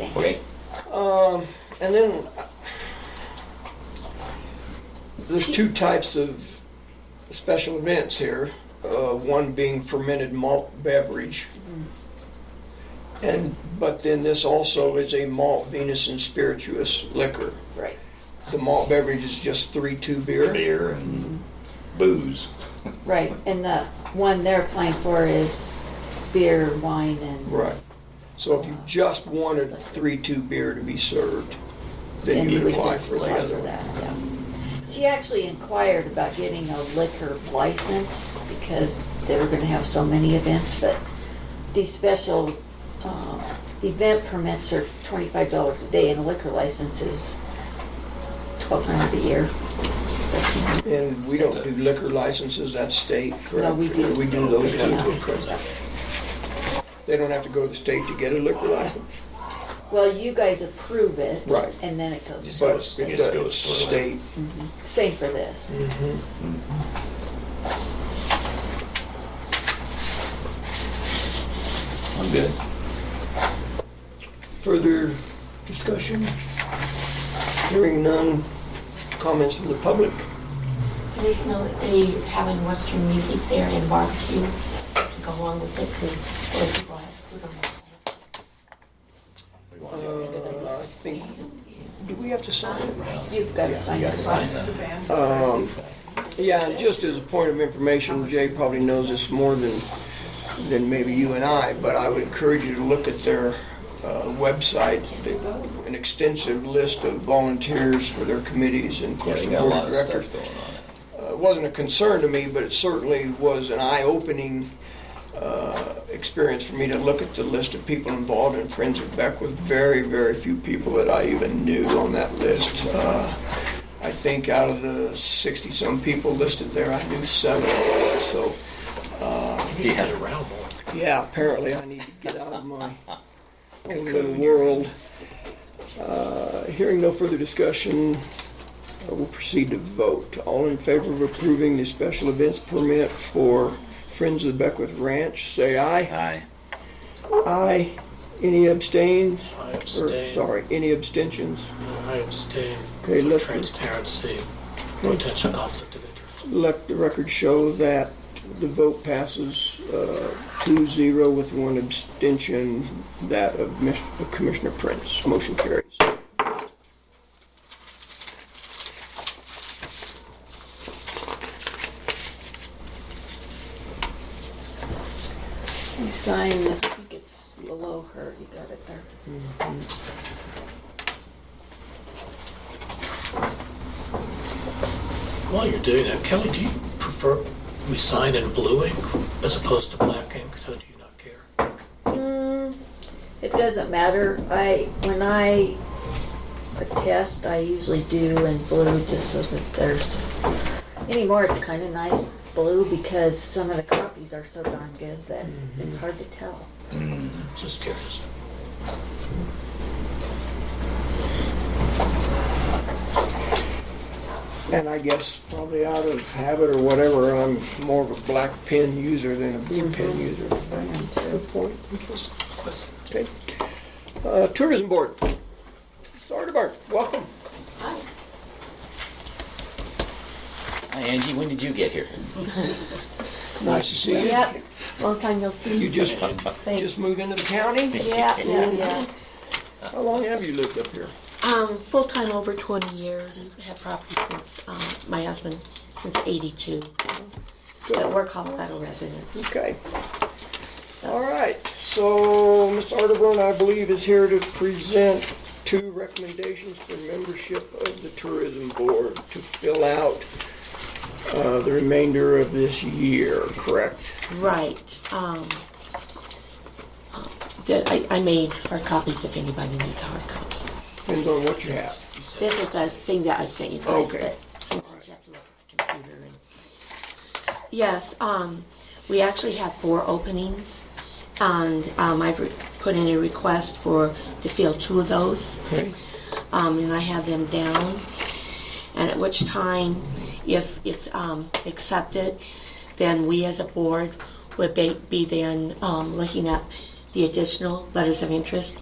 everything. Okay. Um, and then uh, there's two types of special events here. Uh, one being fermented malt beverage, and but then this also is a malt Venus and spirituous liquor. Right. The malt beverage is just three two beer. Beer and booze. Right. And the one they're applying for is beer, wine, and Right. So if you just wanted three two beer to be served, then and you we would apply just for the apply other one. that, yeah. She actually inquired about getting a liquor license because they were gonna have so many events, but these special, um, event permits are twenty-five dollars a day and a liquor license is twelve hundred a year. And we don't do liquor licenses, that's state, correct? we do. We do those Yeah. down to a present. They don't have to go to the state to get a liquor license? Well, you guys approve it. Right. And then it goes. But goes- it it just does goes through. state, Same for this. Mm-hmm. I'm good. further discussion? Hearing none, comments from the public? Please know that they're having Western music there and barbecue to go along with it, and where people have food on the side. Uh, I think, do we have to sign it? You've got to sign You gotta this. sign that. Um, Yeah, and just as a point of information, Jay probably knows this more than, than maybe you and I, but I would encourage you to look at their uh, website, They- an extensive list of volunteers for their committees and of Yeah, course they the got a board lot of of directors. stuff going on. Uh, It wasn't a concern to me, but it certainly was an eye-opening uh, experience for me to look at the list of people involved in Friends of Beckwith. Very, very few people that I even knew on that list. Uh, I think out of the 60-some people listed there, I knew seven. So, uh, He had a round one. yeah, apparently I need to get out of my own little world. Uh, Hearing no further discussion, uh, we'll proceed to vote. All in favor of approving the special events permit for Friends of Beckwith Ranch, say aye. Aye. Aye. Any abstains? I Or, abstain. sorry, any abstentions? I abstain. Okay, For let's- Transparency, potential conflict of interest. Let the record show that the vote passes uh, 2-0 with one abstention, that of Mis- of Commissioner Prince. Motion carries. You sign, I think it's below her, you got it there. While you're doing that, Kelly, do you prefer we sign in blue ink as opposed to black ink? So do you not care? Mm, It doesn't matter. I, when I attest, I usually do in blue just so that there's, anymore it's kind of nice blue because some of the copies are so darn good that it's hard to tell. Just curious. And I guess probably out of habit or whatever, I'm more of a black pen user than a blue Mm-hmm. pen user. Good point. Okay. Uh, Tourism Board. Sardibar, welcome. Hi. Hi Angie, when did you get here? Nice to see you. Yep, long time no see. You just, Thanks. just moved into the county? Yeah, yeah, yeah. How long have you lived up here? Um, full-time over 20 years, had property since, um, my husband, since 82. But we're Colorado residents. Okay. so- All right, so Ms. Arterburn, I believe, is here to present two recommendations for membership of the Tourism Board to fill out uh, the remainder of this year, correct? Right. Um, um, the- I, I made hard copies if anybody needs a hard copy. Depends on what you have. This is the thing that I sent you guys, Okay. but sometimes you have to look at the computer and. Yes, um, we actually have four openings, and, um, I've re- put in a request for, to fill two of those. Um, and I have them down, and at which time, if it's, um, accepted, then we as a board would be, be then, um, looking at the additional letters of interest